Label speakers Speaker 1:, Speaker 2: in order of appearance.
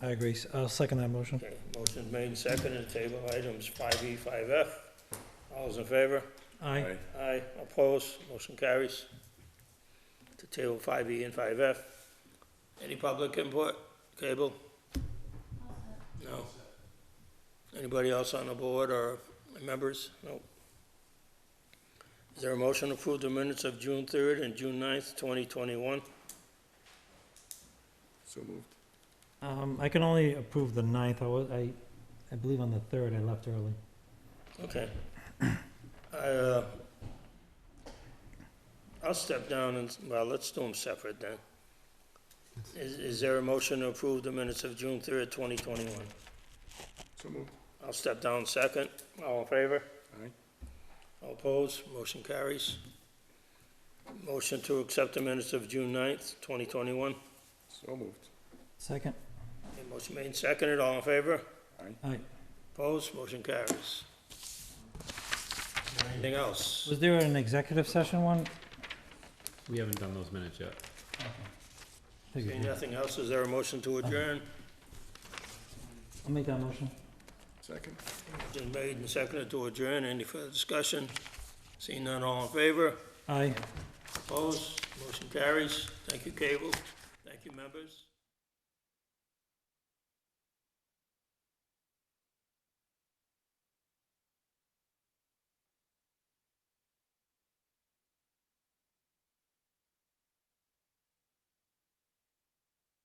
Speaker 1: I agree. I'll second that motion.
Speaker 2: Okay, motion made and seconded, table items five E, five F. All those in favor?
Speaker 1: Aye.
Speaker 2: Aye, opposed, motion carries. To table five E and five F. Any public input, cable? No. Anybody else on the board or members? No. Is there a motion to approve the minutes of June third and June 9th, twenty twenty-one?
Speaker 3: So moved.
Speaker 1: Um, I can only approve the ninth. I was, I, I believe on the third, I left early.
Speaker 2: Okay. I, uh, I'll step down and, well, let's do them separate then. Is, is there a motion to approve the minutes of June third, twenty twenty-one?
Speaker 3: So moved.
Speaker 2: I'll step down second. All in favor?
Speaker 3: Aye.
Speaker 2: All opposed? Motion carries. Motion to accept the minutes of June 9th, twenty twenty-one.
Speaker 3: So moved.
Speaker 1: Second.
Speaker 2: Motion made and seconded. All in favor?
Speaker 1: Aye.
Speaker 2: Opposed? Motion carries. Anything else?
Speaker 1: Was there an executive session one?
Speaker 4: We haven't done those minutes yet.
Speaker 2: Seeing
Speaker 1: Figured.
Speaker 2: nothing else, is there a motion to adjourn?
Speaker 1: I'll make that motion.
Speaker 3: Second.
Speaker 2: Been made and seconded to adjourn. Any further discussion? Seeing none, all in favor?
Speaker 1: Aye.
Speaker 2: Opposed? Motion carries. Thank you, Cable. Thank you, members.